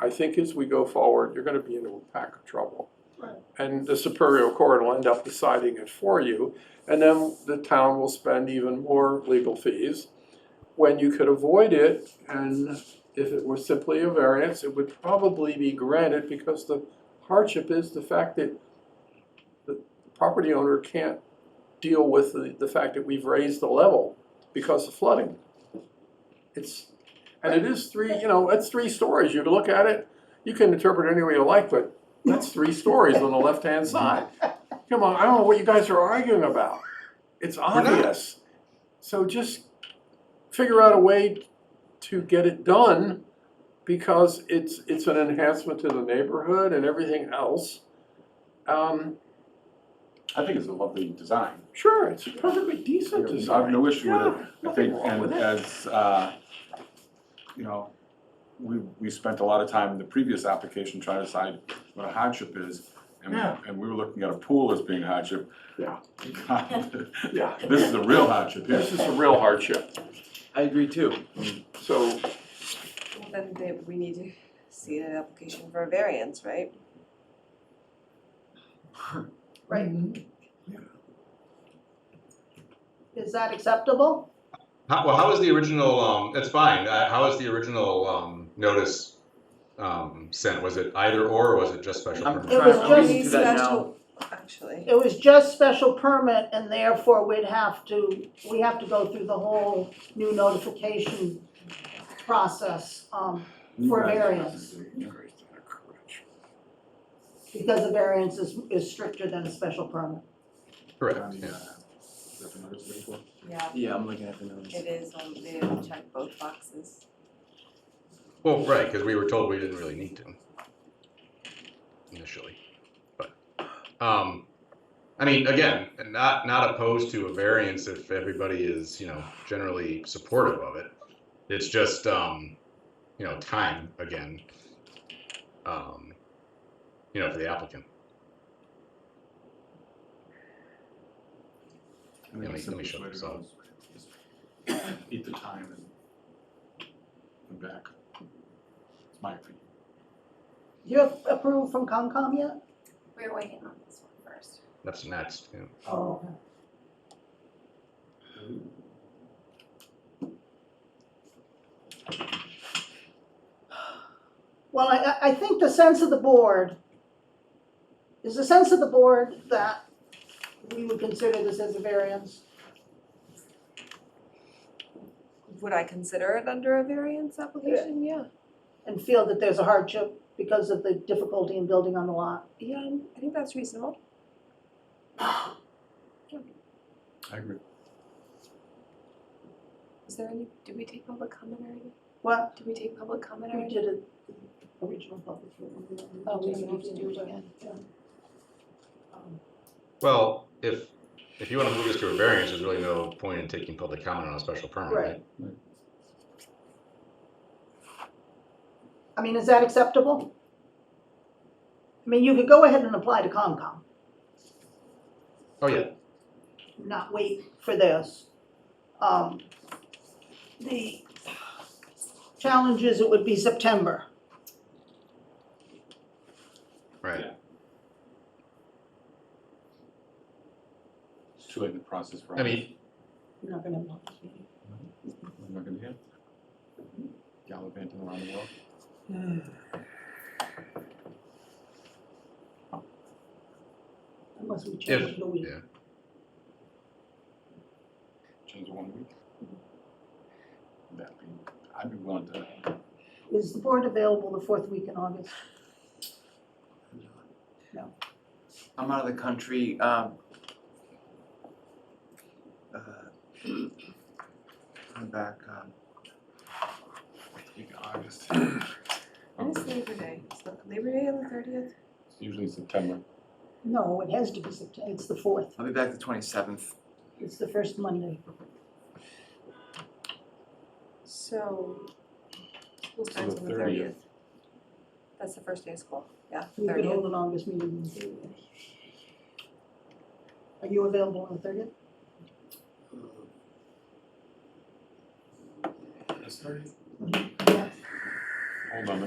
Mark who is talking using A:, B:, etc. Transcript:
A: I think as we go forward, you're gonna be in a pack of trouble.
B: Right.
A: And the Superior Court will end up deciding it for you, and then the town will spend even more legal fees when you could avoid it, and if it were simply a variance, it would probably be granted because the hardship is the fact that the property owner can't deal with the, the fact that we've raised the level because of flooding. It's, and it is three, you know, it's three stories, you can look at it, you can interpret it any way you like, but that's three stories on the left-hand side. Come on, I don't know what you guys are arguing about, it's
C: not.
A: obvious. So just figure out a way to get it done because it's, it's an enhancement to the neighborhood and everything else. Um,
C: I think it's a lovely design.
A: sure, it's a perfectly decent
C: I have
A: design.
C: no issue with
A: Yeah,
C: it. I think,
A: nothing wrong with
C: and
A: it.
C: as, uh, you know, we, we spent a lot of time in the previous application trying to decide what a hardship is. And,
A: Yeah.
C: and we were looking at a pool as being a hardship.
A: Yeah.
C: God,
A: Yeah,
C: This is a real hardship here.
A: this is a real hardship,
D: I agree too.
A: so,
E: Well, Then they, we need to see an application for a variance, right?
B: Right,
A: yeah.
B: is that acceptable?
F: How, well, how is the original, um, it's fine, uh, how is the original, um, notice, um, sent? Was it either or, or was it just special
D: I'm
F: permit?
B: It
D: trying,
B: was
D: I'm reading
B: just-
D: through that now.
E: Special- Actually,
B: It was just special permit and therefore we'd have to, we have to go through the whole new notification process, um, For variance. because the variance is, is stricter than a special permit.
C: um,
F: Correct, yeah.
E: yeah,
D: Yeah, I'm looking at the notes.
E: it is, um, they have to check both boxes.
F: Well, right, because we were told we didn't really need to initially, but, um, I mean, again, not, not opposed to a variance if everybody is, you know, generally supportive of it. It's just, um, you know, time again, um, you know, for the applicant.
C: I think
F: Let me-
C: it's
F: let me
C: simplest
F: shut
C: way to
F: this
C: go
F: off.
C: is Eat the time and come back. It's my opinion.
B: You have approved from Concom yet?
G: We're waiting on this one first.
F: That's next, you know.
B: Oh. okay. Well, I, I- I think the sense of the board, is the sense of the board that we would consider this as a variance?
E: Would I consider it under a variance application? Yeah.
B: And feel that there's a hardship because of the difficulty in building on the lot?
E: Yeah, I'm- I think that's reasonable.
C: I agree.
G: Is there any, did we take public comment already?
B: What,
G: Did we take public comment
B: we
G: already?
B: did it, original public hearing. we don't need
G: Oh, we
B: to
G: don't have to do it again.
B: Um,
F: Well, if, if you want to move this to a variance, there's really no point in taking public comment on a special permit, right?
B: I mean, is that acceptable? I mean, you could go ahead and apply to Concom,
F: Oh, yeah,
B: not wait for this. Um, The challenge is it would be September.
F: right.
C: It's too late in the process for
F: I mean,
B: You're not gonna.
C: We're not gonna hear. Gallivanting around the world.
B: Unless we change the week.
F: yeah.
C: Change it one week. That'd be, I'd be willing to,
B: Is the board available the fourth week in August?
D: I'm out of the country, um. uh, I'm back, um,
C: week of August,
E: And it's Labor Day, it's not Labor Day on the thirtieth?
C: It's usually September.
B: No, it has to be September, it's the fourth,
D: I'll be back the twenty-seventh.
B: it's the first Monday.
E: So, school starts
C: the
E: on the
C: 30th.
E: thirtieth. That's the first day of school, yeah,
B: We could
E: thirtieth.
B: hold an August meeting. in- Are you available on the thirtieth?
C: Hold on,